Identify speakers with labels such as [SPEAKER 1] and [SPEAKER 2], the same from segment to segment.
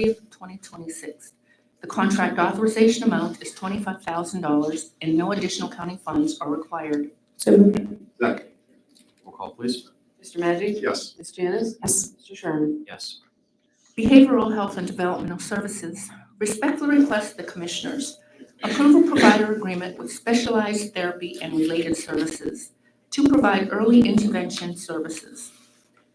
[SPEAKER 1] 30th, 2026. The contract authorization amount is $25,000 and no additional county funds are required.
[SPEAKER 2] So moved.
[SPEAKER 3] Second.
[SPEAKER 4] Roll call, please.
[SPEAKER 5] Mr. Magic?
[SPEAKER 3] Yes.
[SPEAKER 5] Ms. Janice?
[SPEAKER 2] Yes.
[SPEAKER 5] Mr. Sherman?
[SPEAKER 4] Yes.
[SPEAKER 1] Behavioral Health and Developmental Services respectfully request the Commissioners approve a provider agreement with Specialized Therapy and Related Services to provide early intervention services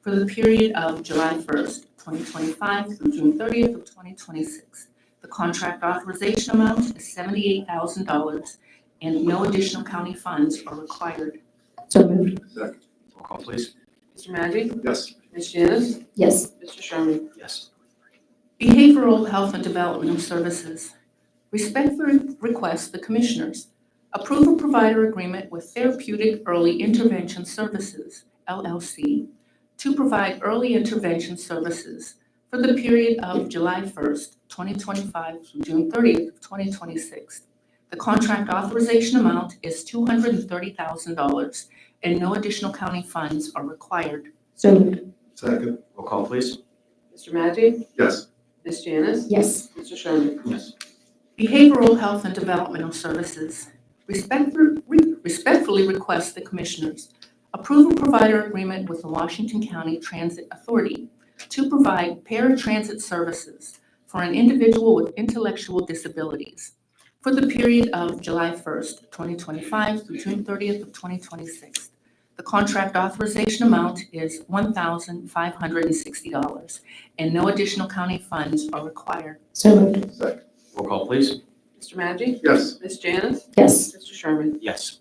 [SPEAKER 1] for the period of July 1st, 2025 through June 30th of 2026. The contract authorization amount is $78,000 and no additional county funds are required.
[SPEAKER 2] So moved.
[SPEAKER 3] Second.
[SPEAKER 4] Roll call, please.
[SPEAKER 5] Mr. Magic?
[SPEAKER 3] Yes.
[SPEAKER 5] Ms. Janice?
[SPEAKER 2] Yes.
[SPEAKER 5] Mr. Sherman?
[SPEAKER 4] Yes.
[SPEAKER 1] Behavioral Health and Developmental Services respectfully request the Commissioners approve a provider agreement with Therapeutic Early Intervention Services, LLC, to provide early intervention services for the period of July 1st, 2025 through June 30th, of 2026. The contract authorization amount is $230,000 and no additional county funds are required.
[SPEAKER 2] So moved.
[SPEAKER 3] Second.
[SPEAKER 4] Roll call, please.
[SPEAKER 5] Mr. Magic?
[SPEAKER 3] Yes.
[SPEAKER 5] Ms. Janice?
[SPEAKER 2] Yes.
[SPEAKER 5] Mr. Sherman?
[SPEAKER 4] Yes.
[SPEAKER 1] Behavioral Health and Developmental Services respectful- re- respectfully request the Commissioners approve a provider agreement with the Washington County Transit Authority to provide paratransit services for an individual with intellectual disabilities for the period of July 1st, 2025 through June 30th of 2026. The contract authorization amount is $1,560, and no additional county funds are required.
[SPEAKER 2] So moved.
[SPEAKER 3] Second.
[SPEAKER 4] Roll call, please.
[SPEAKER 5] Mr. Magic?
[SPEAKER 3] Yes.
[SPEAKER 5] Ms. Janice?
[SPEAKER 2] Yes.
[SPEAKER 5] Mr. Sherman?
[SPEAKER 4] Yes.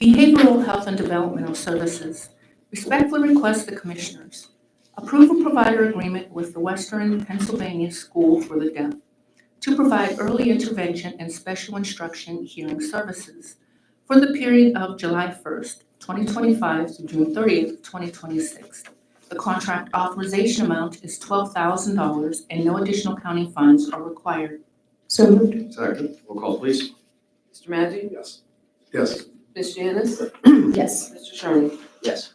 [SPEAKER 1] Behavioral Health and Developmental Services respectfully request the Commissioners approve a provider agreement with the Western Pennsylvania School for the Deaf to provide early intervention and special instruction hearing services for the period of July 1st, 2025 through June 30th, 2026. The contract authorization amount is $12,000 and no additional county funds are required.
[SPEAKER 2] So moved.
[SPEAKER 3] Second.
[SPEAKER 4] Roll call, please.
[SPEAKER 5] Mr. Magic?
[SPEAKER 3] Yes. Yes.
[SPEAKER 5] Ms. Janice?
[SPEAKER 2] Yes.
[SPEAKER 5] Mr. Sherman?
[SPEAKER 4] Yes.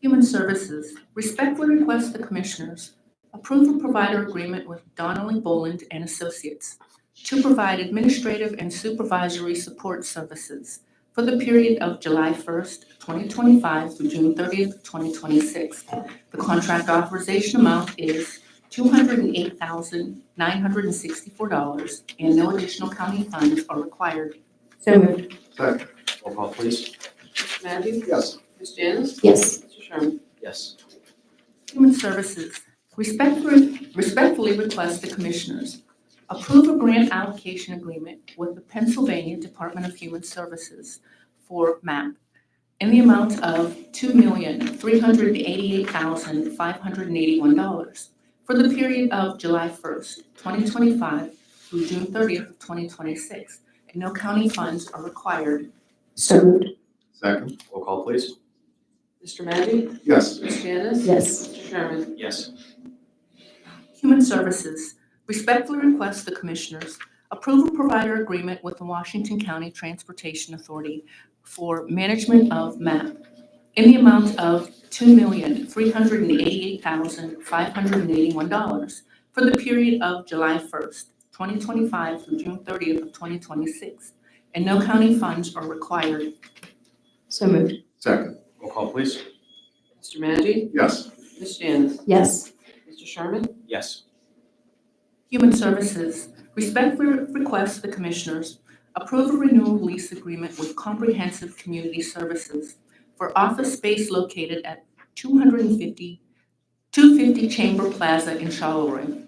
[SPEAKER 1] Human Services respectfully request the Commissioners approve a provider agreement with Donnelly Boland and Associates to provide administrative and supervisory support services for the period of July 1st, 2025 through June 30th, 2026. The contract authorization amount is $208,964, and no additional county funds are required.
[SPEAKER 2] So moved.
[SPEAKER 3] Second.
[SPEAKER 4] Roll call, please.
[SPEAKER 5] Mr. Magic?
[SPEAKER 3] Yes.
[SPEAKER 5] Ms. Janice?
[SPEAKER 2] Yes.
[SPEAKER 5] Mr. Sherman?
[SPEAKER 4] Yes.
[SPEAKER 1] Human Services respectfully respectfully request the Commissioners approve a grant allocation agreement with the Pennsylvania Department of Human Services for MAP in the amount of $2,388,581 for the period of July 1st, 2025 through June 30th, of 2026, and no county funds are required.
[SPEAKER 2] So moved.
[SPEAKER 3] Second.
[SPEAKER 4] Roll call, please.
[SPEAKER 5] Mr. Magic?
[SPEAKER 3] Yes.
[SPEAKER 5] Ms. Janice?
[SPEAKER 2] Yes.
[SPEAKER 5] Mr. Sherman?
[SPEAKER 4] Yes.
[SPEAKER 1] Human Services respectfully request the Commissioners approve a provider agreement with the Washington County Transportation Authority for management of MAP in the amount of $2,388,581 for the period of July 1st, 2025 through June 30th of 2026, and no county funds are required.
[SPEAKER 2] So moved.
[SPEAKER 3] Second.
[SPEAKER 4] Roll call, please.
[SPEAKER 5] Mr. Magic?
[SPEAKER 3] Yes.
[SPEAKER 5] Ms. Janice?
[SPEAKER 2] Yes.
[SPEAKER 5] Mr. Sherman?
[SPEAKER 4] Yes.
[SPEAKER 1] Human Services respectfully request the Commissioners approve a renewal lease agreement with Comprehensive Community Services for office space located at 250, 250 Chamber Plaza in Charleroi.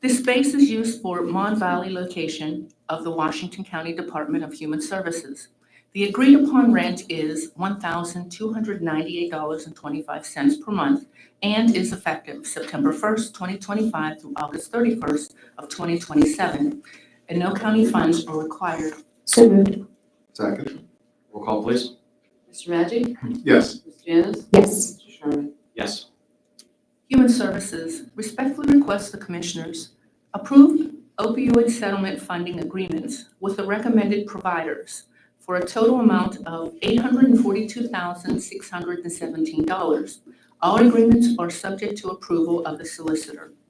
[SPEAKER 1] This space is used for Mon Valley location of the Washington County Department of Human Services. The agreed-upon rent is $1,298.25 per month and is effective September 1st, 2025 through August 31st of 2027, and no county funds are required.
[SPEAKER 2] So moved.
[SPEAKER 3] Second.
[SPEAKER 4] Roll call, please.
[SPEAKER 5] Mr. Magic?
[SPEAKER 3] Yes.
[SPEAKER 5] Ms. Janice?
[SPEAKER 2] Yes.
[SPEAKER 5] Mr. Sherman?
[SPEAKER 4] Yes.
[SPEAKER 1] Human Services respectfully requests the Commissioners approve opioid settlement funding agreements with the recommended providers for a total amount of $842,617. All agreements are subject to approval of the solicitor.